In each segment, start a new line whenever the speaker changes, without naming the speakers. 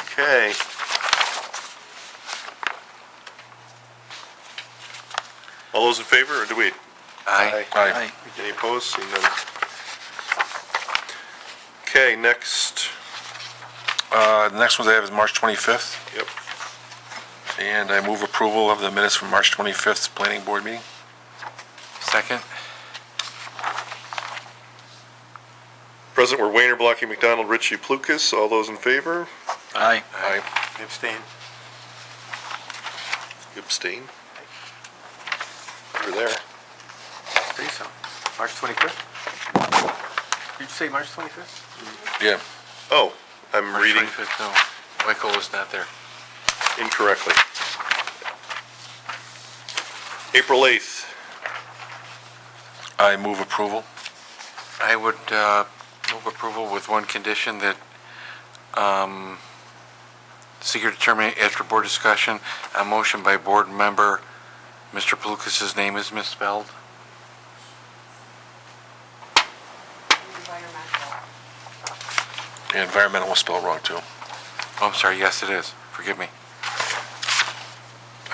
Okay. All those in favor, or do we,
Aye.
Aye.
any opposed? Seeing none. Okay, next,
Uh, The next ones I have is March 25th,
yep,
and I move approval of the minutes from March 25th 's Planning Board meeting.
Second?
present were Wayner, Blocky, McDonald, Ritchie, Plukas, all those in favor?
Aye.
Abstain.
Abstain? You're there.
I think so. March 25th? Did you say March 25th?
Yeah,
Oh, I'm reading
March 25th, No, Michael was not there.
incorrectly. April 8th,
I move approval.
I would uh, move approval with one condition that um, seeker determinate after board discussion, a motion by board member, Mr. Pelukas's name is misspelled.
environmental.
Yeah, Environmental was spelled wrong, too.
Oh, I'm sorry, yes, it is. Forgive me.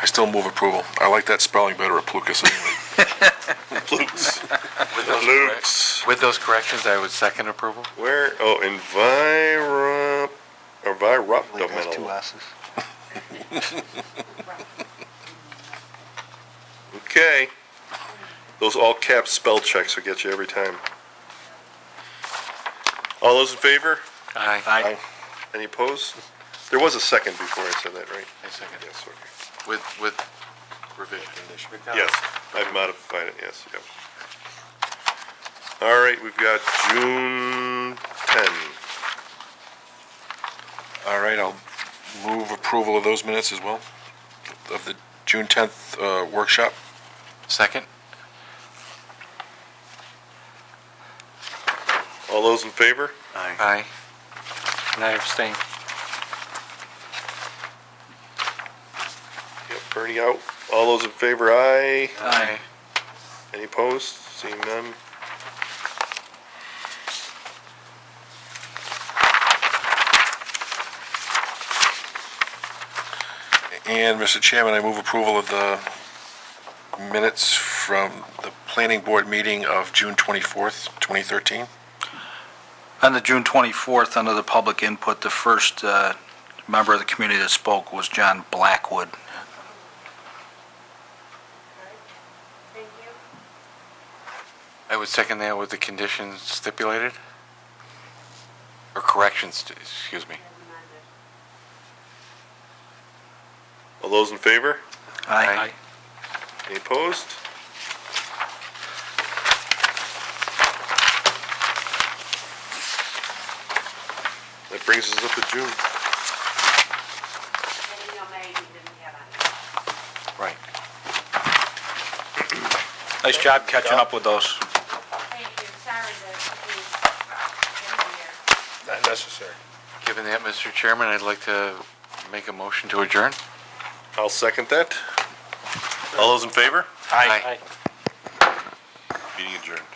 I still move approval. I like that spelling better, Plukas, anyway.
Plukes,
With those correc-
Plukes.
With those corrections, I would second approval.
Where, oh, enviro,
Believe it has two
environmental.
S's.
Okay. Those all caps spell checks will get you every time. All those in favor?
Aye.
Aye.
Any opposed? There was a second before I said that, right?
I second.
Yes, okay.
With, with revision.
Yes, I've modified it, yes, yep. All right, we've got June 10.
All right, I'll move approval of those minutes as well, of the June 10th uh, workshop.
Second?
All those in favor?
Aye.
Aye. And I abstain.
Yep, Bernie out. All those in favor, aye.
Aye.
Any opposed? Seeing none.
And, Mr. Chairman, I move approval of the minutes from the Planning Board meeting of June 24th, 2013.
On the June 24th, under the public input, the first uh, member of the community that spoke was John Blackwood.
Thank you.
I would second that with the conditions stipulated? Or corrections, st- excuse me.
As amended.
All those in favor?
Aye.
Any opposed? That brings us up to June.
And you know, May you didn't have on.
Right.
Nice job catching up with those.
Thank you, sorry that we didn't hear.
Not necessary.
Given that, Mr. Chairman, I'd like to make a motion to adjourn.
I'll second that. All those in favor?
Aye.
Meeting adjourned.